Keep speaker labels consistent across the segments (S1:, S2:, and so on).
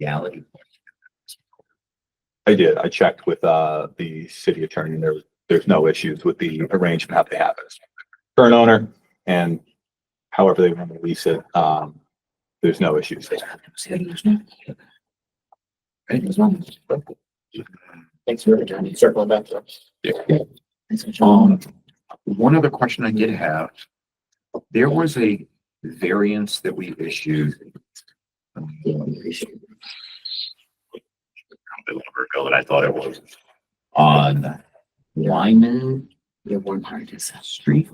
S1: legality.
S2: I did. I checked with uh the city attorney. and There was, there's no issues with the arrangement, how they have it. Current owner and however they want to lease it, um, there's no issues.
S3: Thanks for returning, circling back to us.
S4: Um, one other question I did have. There was a variance that we issued. um, a little ago, and I thought it was on Lyman
S1: Yeah, one part is a street.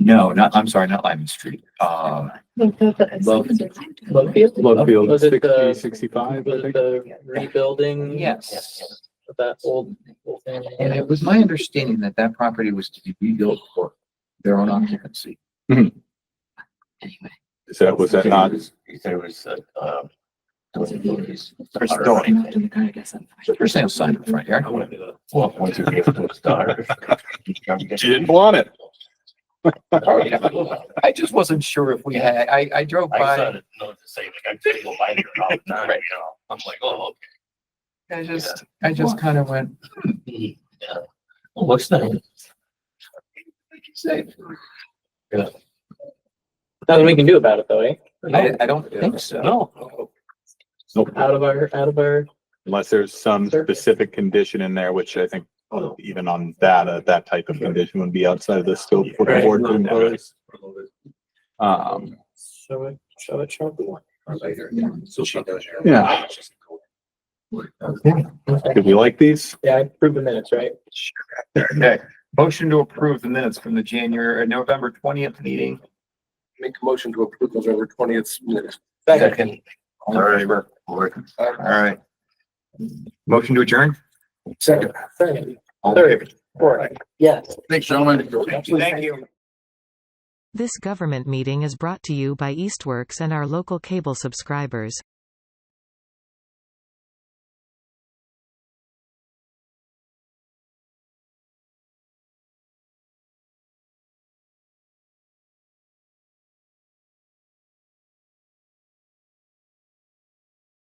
S4: No, not, I'm sorry, not Lyman Street. Uh,
S3: Lovefield?
S2: Lovefield,
S3: Was it the-
S2: 60, 65, I
S3: Was
S2: think.
S3: it the rebuilding?
S4: yes.
S3: Of that old, old thing.
S4: And it was my understanding that that property was to be rebuilt for their own occupancy.
S2: Is that, was that not?
S5: You said it was, uh,
S4: Or stolen. For sale sign in the front yard.
S5: Well, once you get to the star.
S2: didn't want it.
S5: Oh, I
S4: I just wasn't sure if we had, I, I drove by.
S5: started to know to say, like, I'm taking a bite here all the time, you know, I'm like, oh, okay.
S4: I just, I just kind of went,
S5: Yeah. Well, What's that?
S4: "Say,
S3: Nothing we can do about it though, eh?
S4: I, I don't think so.
S5: No.
S2: Nope.
S3: Out of our, out of our,
S2: Unless there's some
S3: Sure.
S2: specific condition in there, which I think even on that, uh, that type of condition would be outside of the scope for the board to impose. Um,
S3: show it, show it, show it.
S4: So she does.
S2: yeah. Did we like these?
S3: Yeah, I approved the minutes, right?
S4: Okay, motion to approve the minutes from the January, uh, November twentieth meeting.
S6: Make a motion to approve November twentieth minutes.
S4: Second. All in favor? All right. Motion to adjourn?
S6: Second.
S3: Second,
S4: All in favor?
S3: third, fourth, yes.
S6: Thanks, gentlemen.
S4: Thank you.
S7: This government meeting is brought to you by Eastworks and our local cable subscribers.